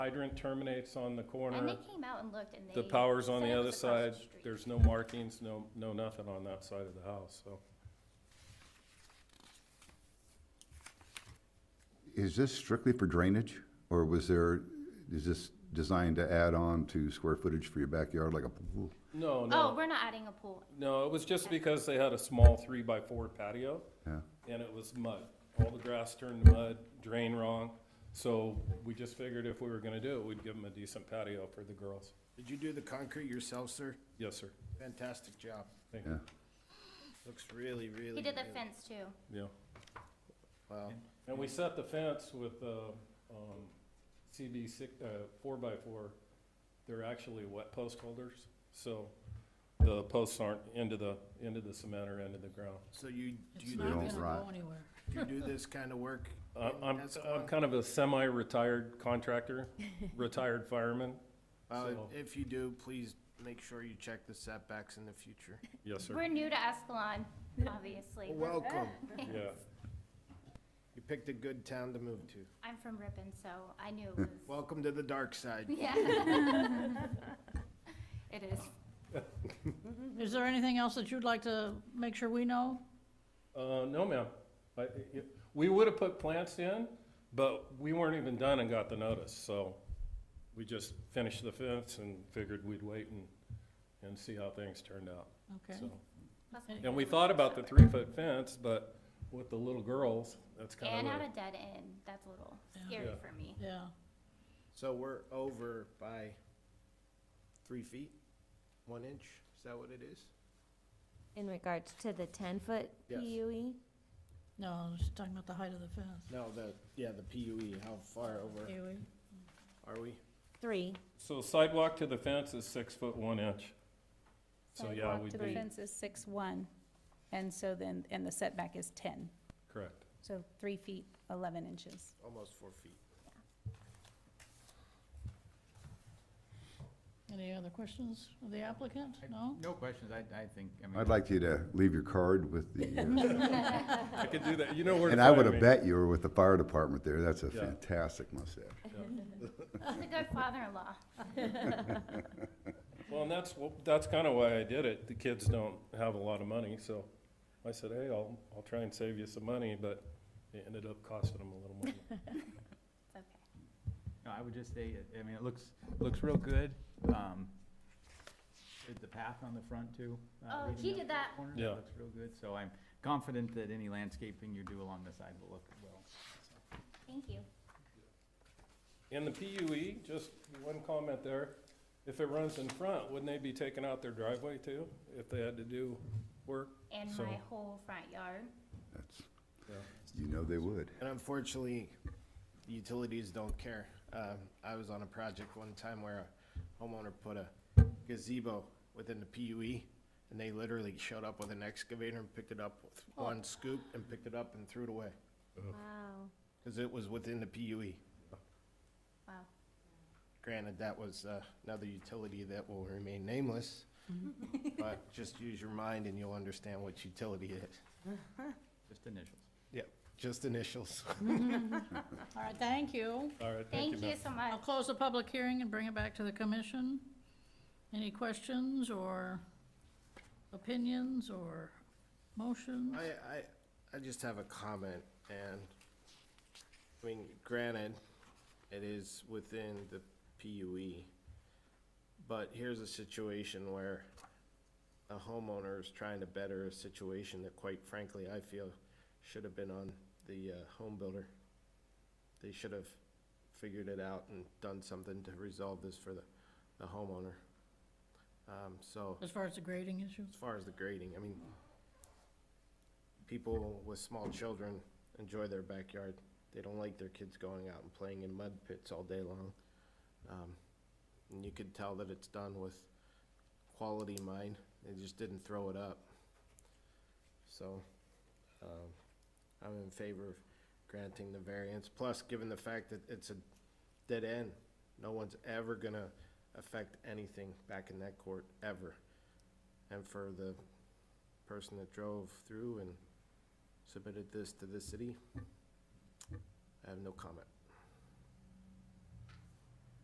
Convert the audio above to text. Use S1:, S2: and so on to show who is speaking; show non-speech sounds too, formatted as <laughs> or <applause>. S1: Hydrant terminates on the
S2: And they
S1: corner,
S2: came out and looked and they.
S1: the power's on
S2: said
S1: the
S2: it
S1: other
S2: was across the
S1: side,
S2: street.
S1: there's no markings, no, no nothing on that side of the house, so.
S3: Is this strictly for drainage, or was there, is this designed to add on to square footage for your backyard like a pool?
S1: No,
S2: Oh,
S1: no,
S2: we're not adding a pool.
S1: no, it was just because they had a small three-by-four patio,
S3: Yeah,
S1: and it was mud. All the grass turned to mud, drain wrong, so we just figured if we were gonna do it, we'd give them a decent patio for the girls.
S4: Did you do the concrete yourself, sir?
S1: Yes, sir.
S4: Fantastic job.
S1: Thank
S3: yeah.
S1: you.
S4: Looks really, really.
S2: He did the
S4: good.
S2: fence too.
S1: Yeah.
S4: Wow.
S1: And we set the fence with, uh, um, CB six, uh, four by four. They're actually wet post holders, so the posts aren't into the, into the cement or into the ground.
S4: So you, do
S5: It's
S4: you
S3: They
S5: not
S4: do
S3: don't
S5: gonna go
S3: rot.
S5: anywhere.
S4: this, you do this kind of
S6: <laughs>
S4: work?
S1: I-
S4: in
S1: I'm, I'm
S4: Ascalon?
S1: kind of a semi-retired contractor, retired fireman.
S4: Uh,
S1: so-
S4: if you do, please make sure you check the setbacks in the future.
S1: Yes, sir.
S2: We're new to Escalon, obviously. We're-
S4: Welcome.
S1: Yeah.
S4: You picked a good town to move to.
S2: I'm from Ripon, so I knew it was.
S4: Welcome to the dark
S2: <laughs>
S4: side.
S2: Yeah. It is.
S5: Is there anything else that you'd like to make sure we know?
S1: Uh, no, ma'am. I, it- we would have put plants in, but we weren't even done and got the notice, so we just finished the fence and figured we'd wait and, and see how things turned out,
S5: Okay.
S1: so.
S2: That's
S5: And-
S1: And we thought about the three-foot fence, but with the little girls, that's kind
S2: And
S1: of
S2: at
S1: a,
S2: a dead end, that's a little
S5: Yeah.
S2: scary
S1: Yeah.
S2: for me.
S5: Yeah,
S4: So we're over by three feet, one inch? Is that what it is?
S7: In regards to the ten-foot
S4: Yes.
S7: PUE?
S5: no, she's talking about the height of the fence.
S4: No, the, yeah, the PUE, how far over
S5: Anyway,
S4: are we?
S7: Three.
S1: so sidewalk to the fence is six foot one inch. So, yeah,
S8: Sidewalk
S1: we'd
S8: to the
S1: be,
S8: fence is six one, and so then, and the setback is ten,
S1: correct.
S8: so three feet, eleven inches.
S4: Almost four feet.
S5: Any other questions of the applicant? No?
S6: No questions, I, I think, I mean.
S3: I'd like you to leave your card
S1: <laughs>
S3: with the,
S1: I could do that, you know where
S3: uh,
S1: to
S3: and I
S1: find
S3: would have
S1: me.
S3: bet you were with the fire department there. That's a
S1: Yeah.
S3: fantastic mustache.
S2: He's a good father-in-law.
S1: Well, and that's, wh- that's kind of why I did it. The kids don't have a lot of money, so I said, hey, I'll, I'll try and save you some money, but it ended up costing them a little more.
S8: <laughs>
S2: It's okay.
S6: No, I would just say, it- I mean, it looks, looks real good. Um, did the path on the front too. uh,
S2: Oh,
S6: leading
S2: he
S6: up
S2: did
S6: to the
S2: that.
S6: corner,
S1: Yeah.
S6: Looks real good, so I'm confident that any landscaping you do along the side will look well.
S2: Thank you.
S1: And the PUE, just one comment there, if it runs in front, wouldn't they be taking out their driveway too, if they had to do work?
S2: And
S1: So-
S2: my whole front yard.
S3: That's,
S1: Yeah.
S3: you know they would.
S4: And unfortunately, utilities don't care. Um, I was on a project one time where a homeowner put a gazebo within the PUE, and they literally showed up with an excavator and picked it up with one scoop and picked it up and threw it away,
S7: Wow.
S4: because it was within the PUE.
S2: Wow.
S4: Granted, that was uh, another utility that will remain nameless, but just use your mind and you'll understand what utility is.
S6: Just initials.
S4: Yep, just initials.
S5: All right, thank you.
S1: All right, thank you,
S2: Thank
S1: ma'am.
S2: you so
S5: I'll
S2: much.
S5: close the public hearing and bring it back to the commission. Any questions or opinions or motions?
S4: I, I, I just have a comment, and, I mean, granted, it is within the PUE, but here's a situation where a homeowner is trying to better a situation that quite frankly, I feel should have been on the, uh, home builder. They should have figured it out and done something to resolve this for the, the homeowner. Um, so.
S5: As far as the grading issue?
S4: As far as the grading, I mean, people with small children enjoy their backyard. They don't like their kids going out and playing in mud pits all day long. Um, And you could tell that it's done with quality in mind. They just didn't throw it up. So, um, I'm in favor of granting the variance. Plus, given the fact that it's a dead end, no one's ever gonna affect anything back in that court, ever and for the person that drove through and submitted this to the city, I have no comment.